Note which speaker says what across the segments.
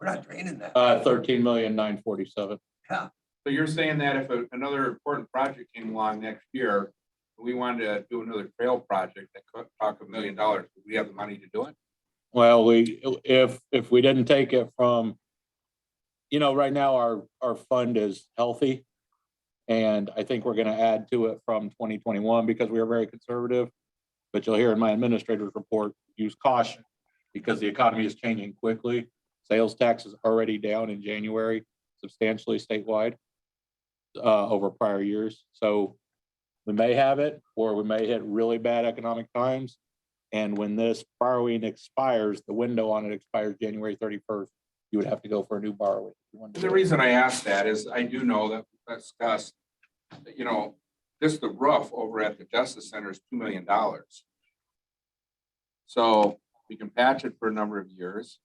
Speaker 1: We're not draining that.
Speaker 2: Uh, thirteen million nine forty-seven.
Speaker 3: So you're saying that if a- another important project came along next year, we wanted to do another trail project that could talk a million dollars, would we have the money to do it?
Speaker 2: Well, we, if, if we didn't take it from, you know, right now our, our fund is healthy. And I think we're gonna add to it from twenty twenty-one because we are very conservative. But you'll hear in my administrator's report, use caution because the economy is changing quickly. Sales tax is already down in January substantially statewide uh, over prior years. So we may have it, or we may hit really bad economic times. And when this borrowing expires, the window on it expires January thirty-first, you would have to go for a new borrowing.
Speaker 3: The reason I ask that is I do know that that's discussed, that, you know, just the roof over at the Justice Center is two million dollars. So we can patch it for a number of years.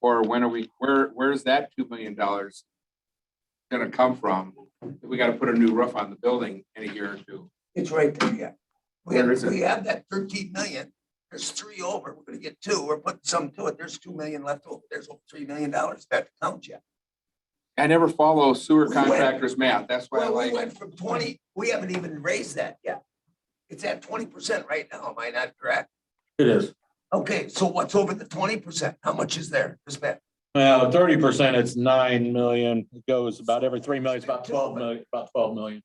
Speaker 3: Or when are we, where, where's that two million dollars gonna come from? We gotta put a new roof on the building in a year or two.
Speaker 1: It's right there, yeah. We
Speaker 3: Where
Speaker 1: have,
Speaker 3: is it?
Speaker 1: we have that thirteen million. There's three over. We're gonna get two. We're putting some to it. There's two million left over. There's over three million dollars that count yet.
Speaker 3: I never follow sewer
Speaker 1: We went-
Speaker 3: contractors math, that's why I
Speaker 1: Well, we
Speaker 3: like it.
Speaker 1: went from twenty, we haven't even raised that yet. It's at twenty percent right now, am I not correct?
Speaker 2: It is.
Speaker 1: Okay, so what's over the twenty percent? How much is there to spend?
Speaker 2: Well, thirty percent, it's nine million, it goes about every three million, it's about twelve million, about twelve million.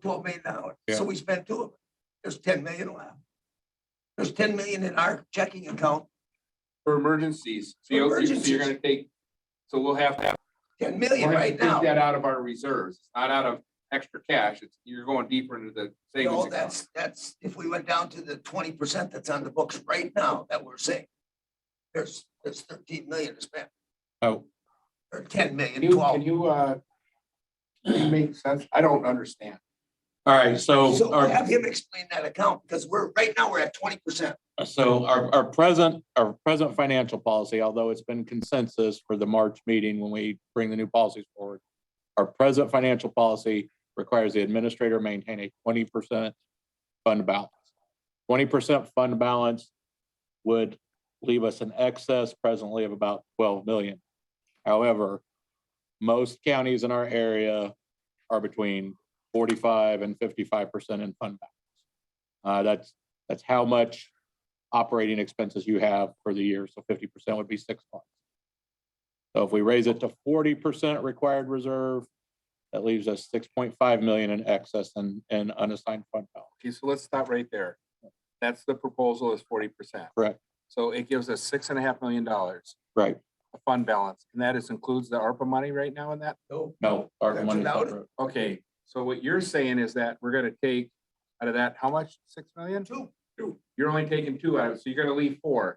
Speaker 1: Twelve million dollars.
Speaker 2: Yeah.
Speaker 1: So we spent two of it. There's ten million left. There's ten million in our checking account,
Speaker 3: For emergencies, so
Speaker 1: For
Speaker 3: you're, so
Speaker 1: emergencies.
Speaker 3: you're gonna take, so we'll have to.
Speaker 1: ten
Speaker 3: we'll
Speaker 1: million
Speaker 3: have to
Speaker 1: right
Speaker 3: take
Speaker 1: now.
Speaker 3: That out of our reserves, It's not out of extra cash, it's, you're going deeper into the savings
Speaker 1: No,
Speaker 3: account.
Speaker 1: that's, that's, if we went down to the twenty percent that's on the books right now that we're saying. There's, there's thirteen million to spend,
Speaker 2: Oh,
Speaker 1: or ten million,
Speaker 3: Can you, can
Speaker 1: twelve.
Speaker 3: you, uh, can you make sense? I don't understand.
Speaker 2: all right, so uh,
Speaker 1: So
Speaker 2: our,
Speaker 1: have him explain that account, because we're, right now, we're at twenty percent.
Speaker 2: so our, our present, our present financial policy, although it's been consensus for the March meeting when we bring the new policies forward. Our present financial policy requires the administrator maintain a twenty percent fund balance. Twenty percent fund balance would leave us an excess presently of about twelve million. However, most counties in our area are between forty-five and fifty-five percent in fund balance. Uh, that's, that's how much operating expenses you have for the year, so fifty percent would be six months. So if we raise it to forty percent required reserve, that leaves us six point five million in excess and, and unassigned fund balance.
Speaker 3: Okay, so let's stop right there. That's the proposal is forty percent.
Speaker 2: Correct.
Speaker 3: So it gives us six and a half million dollars
Speaker 2: Right,
Speaker 3: of fund balance, and that is includes the ARPA money right now in that?
Speaker 1: No,
Speaker 2: no. our
Speaker 1: That's
Speaker 2: money's not
Speaker 1: without it.
Speaker 2: approved.
Speaker 3: Okay, so what you're saying is that we're gonna take out of that, how much? Six million?
Speaker 1: two,
Speaker 3: Two. You're only taking two out of it, so you're gonna leave four,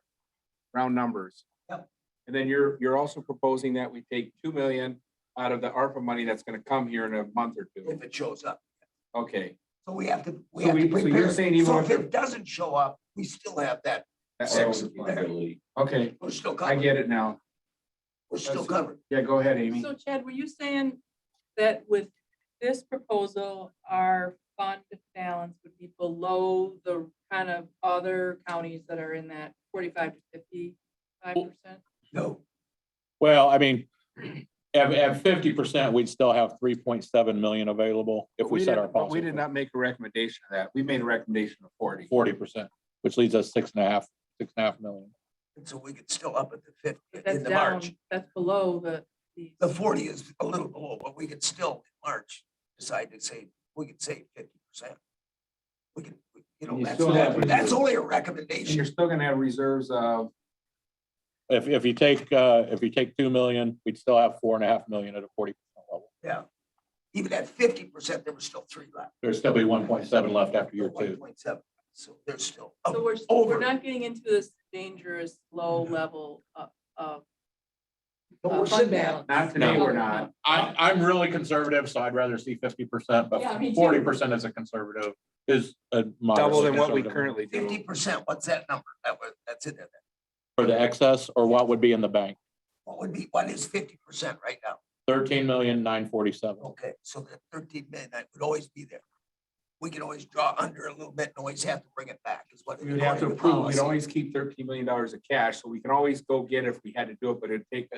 Speaker 3: round numbers.
Speaker 1: Yep.
Speaker 3: And then you're, you're also proposing that we take two million out of the ARPA money that's gonna come here in a month or two.
Speaker 1: if it shows up.
Speaker 3: Okay.
Speaker 1: So we have to, we
Speaker 3: So
Speaker 1: have to
Speaker 3: we- so you're
Speaker 1: prepare.
Speaker 3: saying even
Speaker 1: So
Speaker 3: if
Speaker 1: if
Speaker 3: the-
Speaker 1: it doesn't show up, we still have that,
Speaker 3: that-
Speaker 1: Six.
Speaker 3: Okay,
Speaker 1: we're still
Speaker 3: I
Speaker 1: covered,
Speaker 3: get it now.
Speaker 1: we're still
Speaker 3: that's-
Speaker 1: covered.
Speaker 3: Yeah, go ahead, Amy.
Speaker 4: So Chad, were you saying that with this proposal, our fund balance would be below the kind of other counties that are in that forty-five to fifty-five percent?
Speaker 1: No,
Speaker 2: Well, I mean, at, at fifty percent, we'd still have three point seven million available if
Speaker 3: But
Speaker 2: we set
Speaker 3: didn't-
Speaker 2: our
Speaker 3: but We
Speaker 2: policy.
Speaker 3: did not make a recommendation of that. We made a recommendation of forty.
Speaker 2: Forty percent, which leaves us six and a half, six and a half million.
Speaker 1: and so we could still up at the fifty,
Speaker 4: That's
Speaker 1: in the
Speaker 4: down,
Speaker 1: March. Uh,
Speaker 4: that's below the, the,
Speaker 1: The forty is a little below, but we could still, in March, decide to save, we could save fifty percent. We can, we- you know,
Speaker 3: You
Speaker 1: that's,
Speaker 3: still have
Speaker 1: not- that's
Speaker 3: reserves.
Speaker 1: only a
Speaker 3: And you're
Speaker 1: recommendation.
Speaker 3: still gonna have reserves of,
Speaker 2: If, if you take, uh, if you take two million, we'd still have four and a half million at a forty percent level.
Speaker 1: Even at fifty percent, there was still three left.
Speaker 2: There'd still be one point seven left after year
Speaker 1: One
Speaker 2: two.
Speaker 1: point seven, so there's still.
Speaker 4: so we're,
Speaker 1: uh, over.
Speaker 4: we're not getting into this dangerous low level of, of
Speaker 1: But
Speaker 4: uh,
Speaker 1: we're
Speaker 4: fund
Speaker 1: sitting at,
Speaker 4: balance.
Speaker 3: not today,
Speaker 2: No.
Speaker 3: we're not.
Speaker 2: I, I'm really conservative, so I'd rather see fifty percent, but
Speaker 4: Yeah, me too.
Speaker 2: forty percent as a conservative is a
Speaker 3: Double
Speaker 2: moderately
Speaker 3: than what we
Speaker 2: conservative.
Speaker 3: currently do.
Speaker 1: fifty percent, what's that number? That was, that's in there.
Speaker 2: For the excess or what would be in the bank,
Speaker 1: What would be, what is fifty percent right now?
Speaker 2: thirteen million nine forty-seven.
Speaker 1: Okay, so that thirteen million, that would always be there. We can always draw under a little bit and always have to bring it back is what.
Speaker 3: We would have to
Speaker 1: according
Speaker 3: approve, we'd
Speaker 1: policy.
Speaker 3: always keep thirteen million dollars of cash, so we can always go get it if we had to do it, but it'd take a